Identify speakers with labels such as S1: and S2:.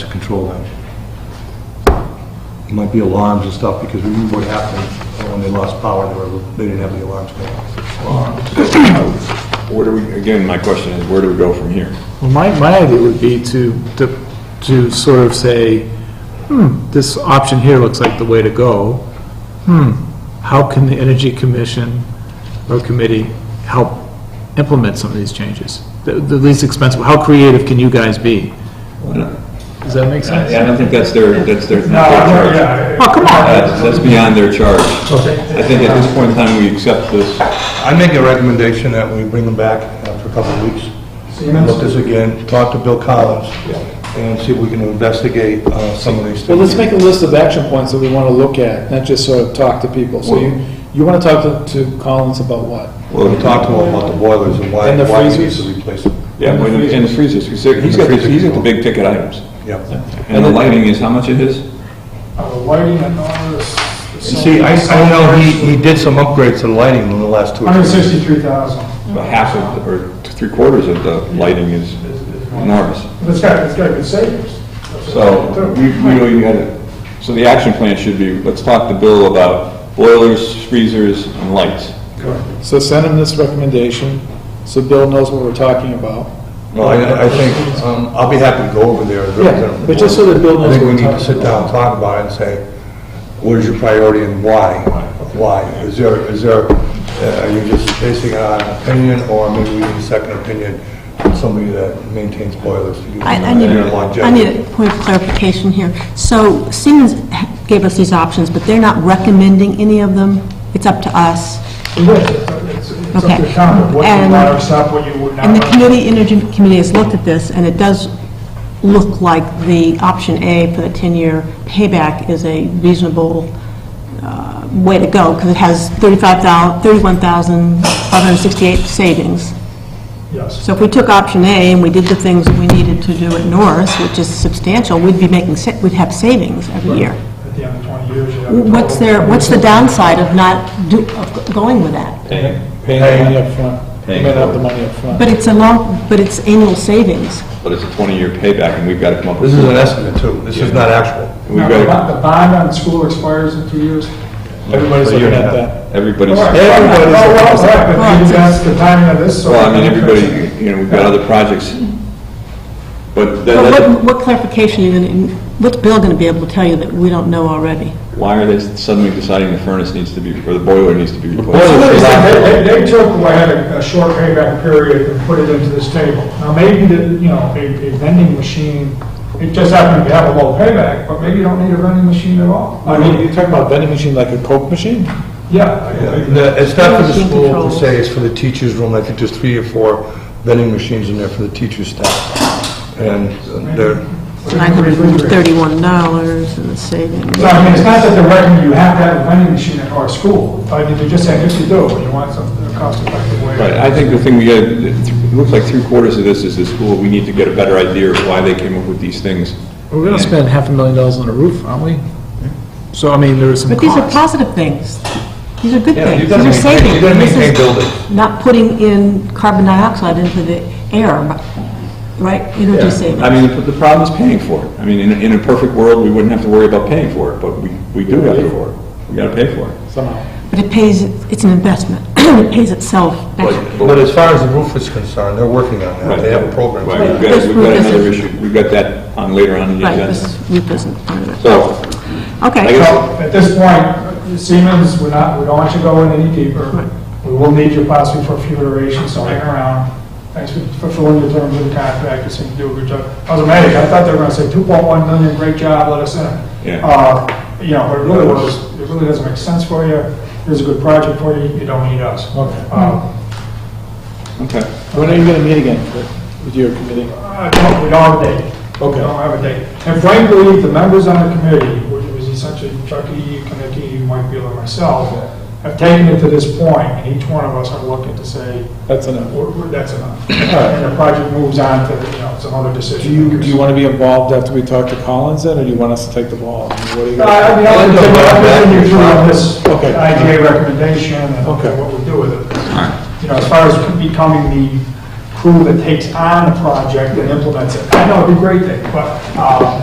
S1: has to control them. It might be alarms and stuff, because we knew what happened when they lost power, they were, they didn't have the alarms going.
S2: Where do we, again, my question is, where do we go from here?
S3: Well, my, my idea would be to, to, to sort of say, hmm, this option here looks like the way to go. Hmm, how can the Energy Commission or Committee help implement some of these changes? The, the least expensive, how creative can you guys be? Does that make
S2: I
S3: sense?
S2: I don't think that's their, that's their,
S4: No,
S2: not their charge.
S4: I'm- yeah,
S3: Oh, come on.
S2: That's, that's beyond their charge. I think at this point in time, we accept this.
S1: I make a recommendation that we bring them back after a couple of weeks, look this again, talk to Bill Collins, and see if we can investigate uh, some of these things.
S3: Well, let's make a list of action points that we want to look at, not just sort of talk to people. So you, you want to talk to, to Collins about what?
S1: We'll talk to him about the boilers and why,
S3: And the
S1: why we need
S3: freezers?
S1: to replace them.
S2: Yeah, when- and the freezers, he's got, he's got the- he's got the big ticket items.
S1: Yeah.
S2: And the lighting is, how much it is?
S4: Uh, Lighting and all this.
S1: And see, I, I know he, he did some upgrades to the lighting in the last two or three
S4: Hundred
S1: years.
S4: sixty-three thousand.
S2: About half of, or three quarters of the lighting is enormous.
S4: But it's got, it's got good savings.
S2: So we we really gotta, so the action plan should be, let's talk to Bill about boilers, freezers, and lights.
S3: So send him this recommendation, so Bill knows what we're talking about.
S1: Well, I, I think, um, I'll be happy to go over there. and represent them.
S3: Yeah, but just so that Bill knows
S1: I think
S3: what
S1: we
S3: we're
S1: need to
S3: talking
S1: sit down and talk about it and say, what is your priority and why? Why? Is there, is there, uh, are you just basing it on opinion, or maybe we need a second opinion from somebody that maintains boilers? to give
S5: I,
S1: them
S5: I need,
S1: their
S5: I
S1: longevity?
S5: need a point of clarification here. So Siemens gave us these options, but they're not recommending any of them? It's up to us?
S4: It is. It's- It's up to
S5: Okay.
S4: town, what you
S5: And-
S4: want to stop, what you would not.
S5: And the
S4: want.
S5: committee, Energy Committee has looked at this, and it does look like the option A for the 10-year payback is a reasonable uh, way to go, because it has 35,000, 31,568 savings.
S4: Yes.
S5: So if we took option A and we did the things that we needed to do at Norris, which is substantial, we'd be making, sa- we'd have savings every year.
S4: At the end of twenty years, you have. a total-
S5: What's their, what's the downside of not do, of going with that?
S3: Paying the money up front. You
S2: Paying
S3: may not have
S2: for
S3: the
S2: it.
S3: money up front.
S5: But it's a long, but it's annual savings.
S2: But it's a 20-year payback, and we've got to come up with...
S1: This is an estimate too, this is not actual.
S2: We've
S4: Now, the
S2: got
S4: bond- the bond on school expires in two years.
S3: Everybody's
S1: But you're
S3: looking
S1: not-
S3: at that.
S2: to, everybody's...
S4: Oh,
S1: Everybody's-
S4: well, right, but you got the timing of this, so.
S2: Well, I mean, everybody, you know, we've got other projects, but that-
S5: But
S2: that-
S5: what, what clarification are you going to, what's Bill going to be able to tell you that we don't know already?
S2: why are they suddenly deciding the furnace needs to be, or the boiler needs to be
S4: So
S2: replaced?
S4: they said They, they, they took, away had a, a short payback period and put it into this table. Now, maybe the, you know, a, a vending machine, it just happened to have a low payback, but maybe you don't need a vending machine at all. I mean,
S3: talking about vending machine like a Coke machine?
S4: yeah.
S1: The- It's not for the
S5: Machine
S1: school per
S5: controls.
S1: se, it's for the teachers' room, I think there's three or four vending machines in there for the teachers' staff. And uh, they're,
S5: $931 in the savings.
S4: So, I mean, it's not that they're recommending you have to have a vending machine at our school. I mean, they're just saying, if you do, and you want something, a cost-effective way.
S2: But I think the thing we, had- it looks like three quarters of this is the school, we need to get a better idea of why they came up with these things.
S3: We're gonna spend half a million dollars on a roof, aren't we? So, I mean, there is some
S5: But these are
S3: cost.
S5: positive things. These are good
S1: Yeah,
S5: things.
S1: you've
S5: These
S1: got to
S5: are
S1: maintain-
S5: savings.
S1: you've got to
S5: This is
S1: maintain buildings.
S5: Not putting in carbon dioxide into the air, right? Energy savings.
S2: I mean, the- the problem is paying for it. I mean, in, a- in a perfect world, we wouldn't have to worry about paying for it, but we, we do have to, we gotta pay for it.
S3: Somehow.
S5: But it pays, it's an investment. It pays itself back.
S1: but as far as the roof is concerned, they're working on that,
S2: Right.
S1: they have a program.
S2: Right, we've got,
S5: This
S2: we've got
S5: group
S2: another
S5: isn't-
S2: issue, we've got that on later on in the
S5: Right,
S2: agenda.
S5: this roof isn't part of it.
S2: So, I
S5: Okay.
S2: guess-
S4: So, at this point, Siemens, we're not, we don't want you going any deeper. We will need you possibly for a few iterations, so hang around. Thanks for fulfilling the terms of the contract, you seem to do a good job. I was amazed, I thought they were gonna say two point one million, great job, let us in.
S2: Yeah.
S4: Uh, you know, but it really was, it really doesn't make sense for you, here's a good project for you, you don't need us. Uh,
S2: okay.
S3: When are you gonna meet again for- with your committee?
S4: Uh, no, we don't have a date.
S3: Okay.
S4: We don't have a date. And frankly, the members on the committee, which was essentially Chucky, Kinnicky, Mike Beal, and myself, have taken it to this point, and each one of us are looking to say,
S3: That's enough.
S4: "We're- we're- that's enough. And the project moves on to, you know, some other
S3: Do
S4: decision.
S3: you, do
S4: makers.
S3: you wanna be involved after we talk to Collins then, or do you want us to take the ball? I mean, what do you
S4: No, I
S3: guys-
S4: mean, Uh, I'll continue- I'll continue through on this
S3: Okay.
S4: IGA recommendation and
S3: Okay.
S4: what we do with it. You know, as far as becoming the crew that takes on the project and implements it, I know it'd be a great thing, but, um,